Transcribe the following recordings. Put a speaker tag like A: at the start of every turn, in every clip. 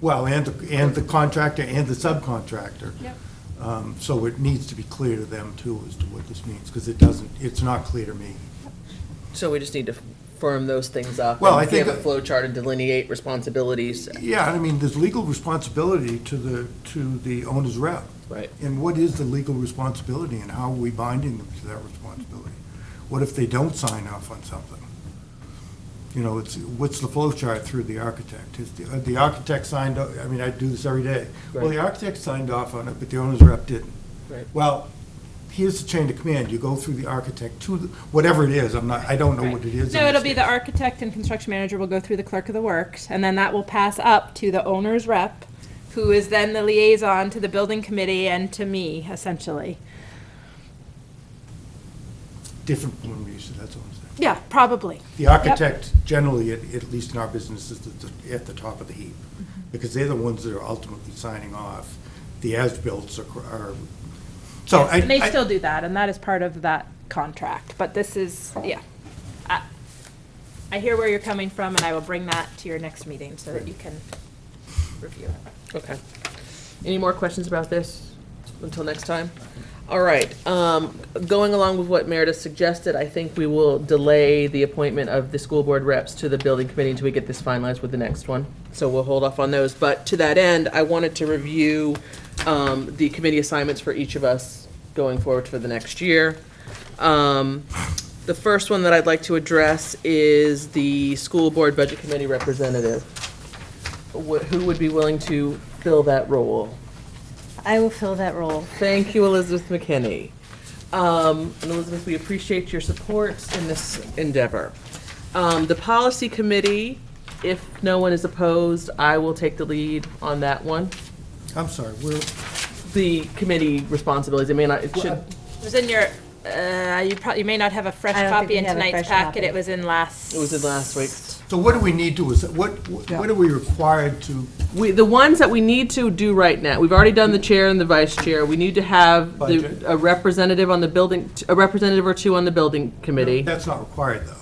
A: Well, and, the- and the contractor and the subcontractor.
B: Yep.
A: Um, So it needs to be clear to them too as to what this means, because it doesn't, it's not clear to me.
C: So we just need to firm those things up.
A: Well, I
C: and Give
A: think-
C: a flow chart and delineate responsibilities.
A: Yeah, I mean, there's legal responsibility to the, to the owner's rep.
C: Right.
A: And what is the legal responsibility and how are we binding them to that responsibility? What if they don't sign off on something? You know, it's, what's the flow chart through the architect? Is the, uh, the architect signed, o- I mean, I do this every day. Well, the architect signed off on it, but the owner's rep didn't.
C: Right.
A: Well, here's the chain of command. You go through the architect to, the- whatever it is, I'm not, I don't know what it is. in
B: No, it'll
A: this
B: be the
A: case.
B: architect and construction manager will go through the clerk of the works, and then that will pass up to the owner's rep, who is then the liaison to the building committee and to me, essentially.
A: Different form of use, that's all I'm saying.
B: Yeah, probably.
A: The architect, generally, at, at least in our business, is at the, at the top of the heap,
B: Mm-hmm.
A: because they're the ones that are ultimately signing off. The as-bills are, are, so I,
B: And they
A: I,
B: still do that, and that is part of that contract, but this is,
A: Oh.
B: yeah. I- I hear where you're coming from, and I will bring that to your next meeting so that you can review it.
C: Okay. Any more questions about this until next time? All right, um, going along with what Meredith suggested, I think we will delay the appointment of the school board reps to the building committee until we get this finalized with the next one. So we'll hold off on those. But to that end, I wanted to review, um, the committee assignments for each of us going forward for the next year. Um, the first one that I'd like to address is the school board budget committee representative wh- who would be willing to fill that role?
D: I will fill that role.
C: Thank you, Elizabeth McKinney. Um, And Elizabeth, we appreciate your support in this endeavor. Um, The Policy Committee, if no one is opposed, I will take the lead on that one.
A: I'm sorry, we're,
C: The committee responsibilities, I mean, I- it should,
B: It was in your, uh, you probably, you may not have a fresh
D: I don't think
B: copy
D: we
B: in
D: have a
B: tonight's
D: fresh
B: packet,
D: copy.
B: it was in last.
C: it was in last week.
A: so what do we need to, is, what, what are we required to,
C: We, the ones that we need to do right now, we've already done the chair and the vice chair. We need to have
A: Budget.
C: the- a representative on the building, a representative or two on the building committee.
A: that's not required, though.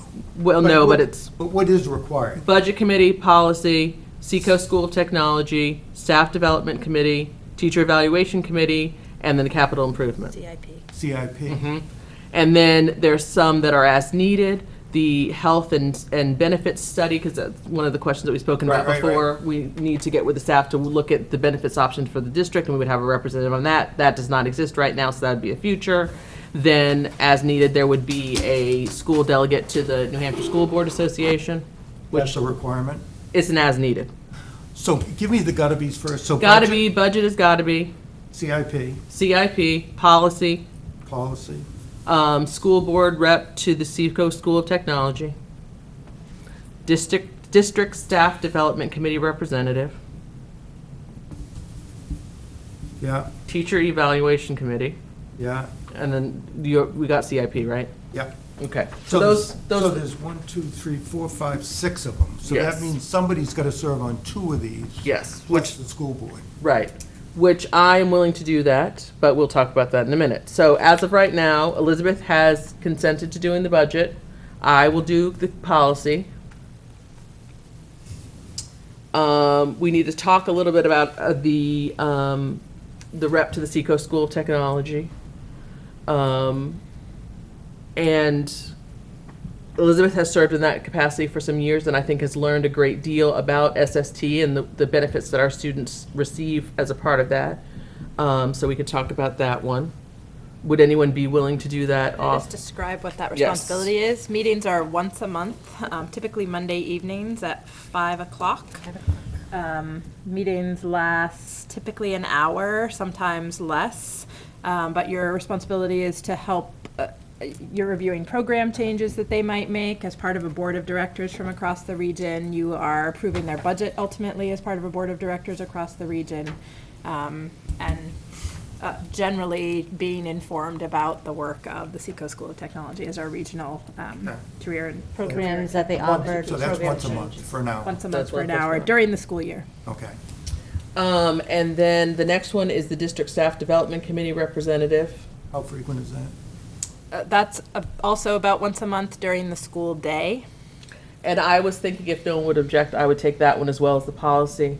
C: Well, no,
A: what-
C: but it's
A: But what is required?
C: Budget Committee, Policy, Seco School of Technology, Staff Development Committee, Teacher Evaluation Committee, and then the Capital Improvement.
B: CIP.
C: Mm-hmm.
A: CIP?
C: And then there's some that are as needed, the Health and, and Benefits Study, because that's one of the questions that we've spoken about
A: Right, right, right.
C: before. We need to get with the staff to look at the benefits options for the district, and we would have a representative on that. That does not exist right now, so that'd be a future. Then, as needed, there would be a school delegate to the New Hampshire School Board Association,
A: That's
C: which
A: a requirement?
C: is an as-needed.
A: So give me the gotta be's first, so.
C: Gotta
A: budget,
C: be, budget has gotta be,
A: CIP,
C: CIP, policy,
A: policy,
C: um, school board rep to the Seacoast School of Technology, district, district staff development committee representative,
A: yeah,
C: teacher evaluation committee,
A: yeah,
C: and then you, we got CIP, right?
A: yeah.
C: Okay,
A: So
C: so those,
A: there's, so
C: those,
A: there's one, two, three, four, five, six of them. So that
C: Yes.
A: means somebody's got to serve on two of these.
C: Yes,
A: Plus the school board.
C: right, which I am willing to do that, but we'll talk about that in a minute. So as of right now, Elizabeth has consented to doing the budget. I will do the policy. Um, we need to talk a little bit about uh, the, um, the rep to the Seacoast School of Technology. Um, and Elizabeth has served in that capacity for some years and I think has learned a great deal about SST and the, the benefits that our students receive as a part of that. Um, so we could talk about that one. Would anyone be willing to do that
B: Can I just
C: off?
B: describe what that
C: Yes.
B: responsibility is? Meetings are once a month, um, typically Monday evenings at five o'clock. Um, Meetings last typically an hour, sometimes less, Um, but your responsibility is to help, uh, you're reviewing program changes that they might make as part of a board of directors from across the region. You are approving their budget ultimately as part of a board of directors across the region. Um, And uh, generally being informed about the work of the Seacoast School of Technology as our regional um,
A: Yeah.
B: career and
D: Programs
B: programs
D: that they offered.
A: So that's
D: program
A: once a month
D: changes.
A: for now.
B: once a month
C: That's
B: for an
C: once a
B: hour
C: month.
B: during the school year.
A: Okay.
C: Um, and then the next one is the district staff development committee representative.
A: How frequent is that?
B: Uh, That's uh, also about once a month during the school day.
C: And I was thinking if no one would object, I would take that one as well as the policy.